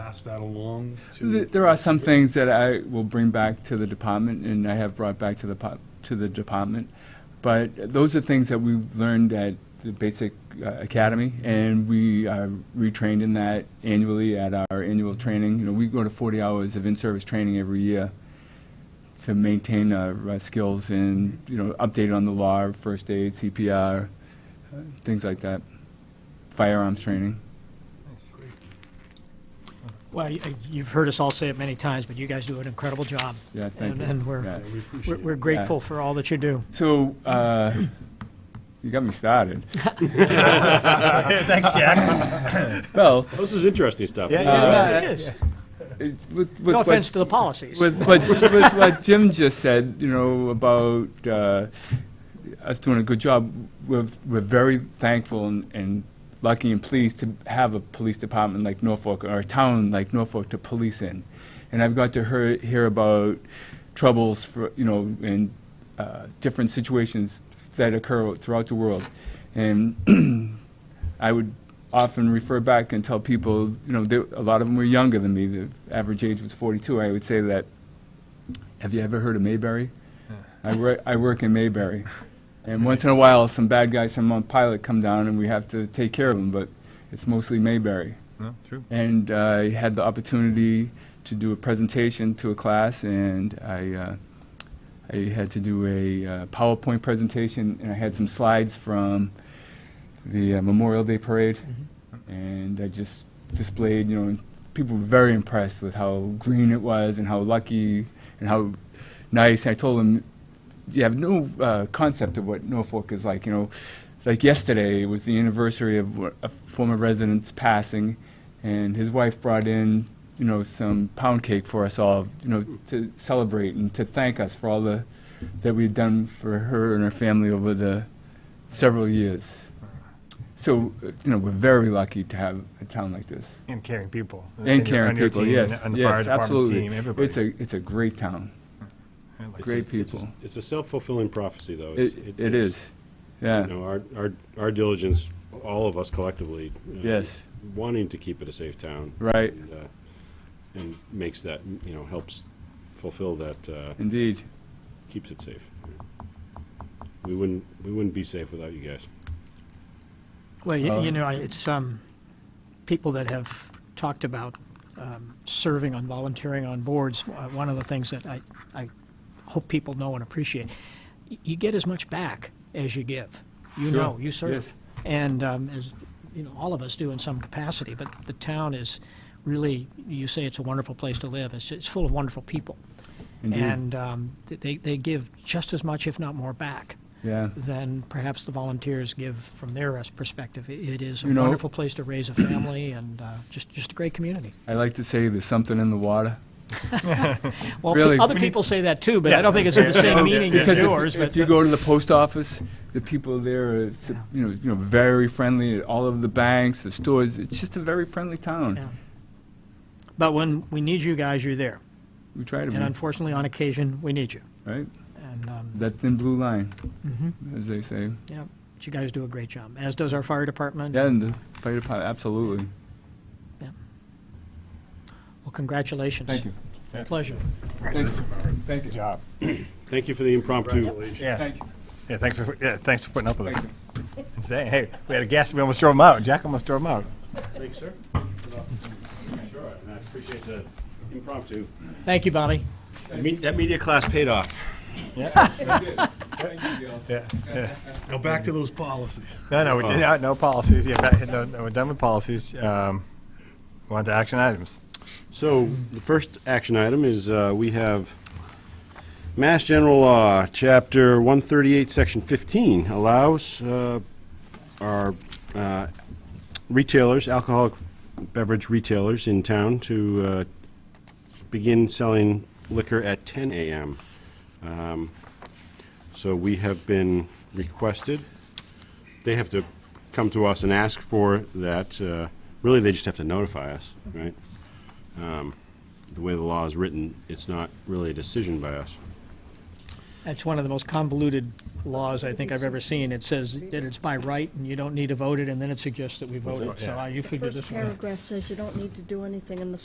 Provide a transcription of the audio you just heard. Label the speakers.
Speaker 1: pass that along to?
Speaker 2: Th- There are some things that I will bring back to the department, and I have brought back to the, po- to the department. But those are things that we've learned at the basic uh, academy, and we are retrained in that annually at our annual training. You know, we go to 40 hours of in-service training every year to maintain our uh, skills and, you know, update on the law, first aid, CPR, uh, things like that, firearms training.
Speaker 3: Well, y- you've heard us all say it many times, but you guys do an incredible job.
Speaker 2: Yeah, thank
Speaker 3: And-
Speaker 2: you.
Speaker 3: And we're,
Speaker 1: Yeah,
Speaker 2: Yeah.
Speaker 1: We
Speaker 3: we're-
Speaker 1: appreciate it.
Speaker 3: we're grateful for all that you do.
Speaker 2: So, uh, you got me started.
Speaker 3: Uh, Thanks, Jack.
Speaker 2: Well,
Speaker 4: This is interesting stuff.
Speaker 3: It is.
Speaker 2: it- with, with
Speaker 3: No
Speaker 2: what-
Speaker 3: offense to the policies.
Speaker 2: With what, with what Jim just said, you know, about uh, us doing a good job, we're, we're very thankful and, and lucky and pleased to have a police department like Norfolk, or a town like Norfolk to police in. And I've got to hear, hear about troubles for, you know, and uh, different situations that occur throughout the world. And I would often refer back and tell people, you know, they, a lot of them were younger than me. The average age was 42. I would say that, have you ever heard of Mayberry? I, wor- I work in Mayberry. And once in a while, some bad guys from Mount Pilot come down and we have to take care of them, but it's mostly Mayberry.
Speaker 5: No, true.
Speaker 2: And uh, I had the opportunity to do a presentation to a class, and I, uh, I had to do a uh, PowerPoint presentation, and I had some slides from the uh, Memorial Day Parade, and I just displayed, you know, and people were very impressed with how green it was and how lucky and how nice. I told them, you have no uh, concept of what Norfolk is like, you know. Like yesterday was the anniversary of wh- a former resident's passing, and his wife brought in, you know, some pound cake for us all, you know, to celebrate and to thank us for all the that we've done for her and her family over the several years. So, uh, you know, we're very lucky to have a town like this.
Speaker 5: And caring people.
Speaker 2: And
Speaker 5: your- on
Speaker 2: caring
Speaker 5: your
Speaker 2: people,
Speaker 5: team,
Speaker 2: yes,
Speaker 5: On the fire
Speaker 2: yes,
Speaker 5: department's
Speaker 2: absolutely.
Speaker 5: team, everybody.
Speaker 2: It's a, it's a great town,
Speaker 5: I like
Speaker 2: great
Speaker 4: It's a- it's a-
Speaker 2: people.
Speaker 4: It's a self-fulfilling prophecy, though. It's-
Speaker 2: It,
Speaker 4: it-
Speaker 2: it
Speaker 4: it's-
Speaker 2: is, yeah,
Speaker 4: You know, our, our, our diligence, all of us collectively. uh,
Speaker 2: Yes.
Speaker 4: Wanting to keep it a safe town.
Speaker 2: right,
Speaker 4: and, uh, And makes that, you know, helps fulfill that, uh,
Speaker 2: indeed.
Speaker 4: keeps it safe. We wouldn't, we wouldn't be safe without you guys.
Speaker 3: Well, you,
Speaker 2: Uh,
Speaker 3: you know, it's um, people that have talked about um, serving on volunteering on boards. Uh, one of the things that I, I hope people know and appreciate, y- you get as much back as you give. You
Speaker 2: Sure,
Speaker 3: know, you serve, and um, as you know, all of us do in some capacity. But the town is really, you say it's a wonderful place to live. It's, it's full of wonderful people,
Speaker 2: Indeed.
Speaker 3: and um, th- they they give just as much, if not more, back
Speaker 2: Yeah,
Speaker 3: than perhaps the volunteers give from their uh, perspective. I- It is a
Speaker 2: You know-
Speaker 3: wonderful place to raise a family and uh, just, just a great community.
Speaker 2: I like to say there's something in the water.
Speaker 3: Well,
Speaker 2: Really.
Speaker 3: pe- other people say that too, but I don't think it's in the same meaning as
Speaker 2: Because if-
Speaker 3: yours,
Speaker 2: if,
Speaker 3: but
Speaker 2: you go to the post office, the people there are, su- you know, you know, very friendly. at All of the banks, the stores. It's just a very friendly town.
Speaker 3: Yeah. But when we need you guys, you're there.
Speaker 2: We try to
Speaker 3: And
Speaker 2: be
Speaker 3: unfortunately, on occasion, we need you.
Speaker 2: right.
Speaker 3: And, um,
Speaker 2: That thin blue line,
Speaker 3: Mm-hmm.
Speaker 2: as they say.
Speaker 3: yeah, but you guys do a great job, as does our fire department.
Speaker 2: Yeah, and the fire department. Absolutely.
Speaker 3: Well, congratulations.
Speaker 2: Thank you.
Speaker 3: Pleasure.
Speaker 2: Thank you. Thank
Speaker 5: Good
Speaker 2: you.
Speaker 5: job.
Speaker 4: Thank you for the impromptu.
Speaker 1: Congratulations.
Speaker 5: Yeah,
Speaker 2: Thank you.
Speaker 5: yeah, thanks for, yeah, thanks for putting up with us. And saying, hey, we had a guest, we almost drove him out. Jack almost drove him out.
Speaker 4: Thanks, sir. Sure, and I appreciate the impromptu.
Speaker 3: Thank you, Bobby.
Speaker 4: Me- That media class paid off.
Speaker 5: Yeah, yeah.
Speaker 1: Go back to those policies.
Speaker 5: No, no, we did, no, no policies. Yeah, back- no, no, we're done with policies. Um, we're on to action items.
Speaker 4: So, the first action item is, uh, we have Mass General Law, Chapter 138, Section 15, allows uh, our uh, retailers, alcoholic beverage retailers in town to uh, begin selling liquor at 10 a.m. Um, So, we have been requested, they have to come to us and ask for that. uh, Really, they just have to notify us, right? the way the law is written, it's not really a decision by us.
Speaker 3: That's one of the most convoluted laws I think I've ever seen. It says that it's by right and you don't need to vote it, and then it suggests that we vote it. So uh, you figured
Speaker 6: First
Speaker 3: this one out.
Speaker 6: paragraph says you don't need to do anything in the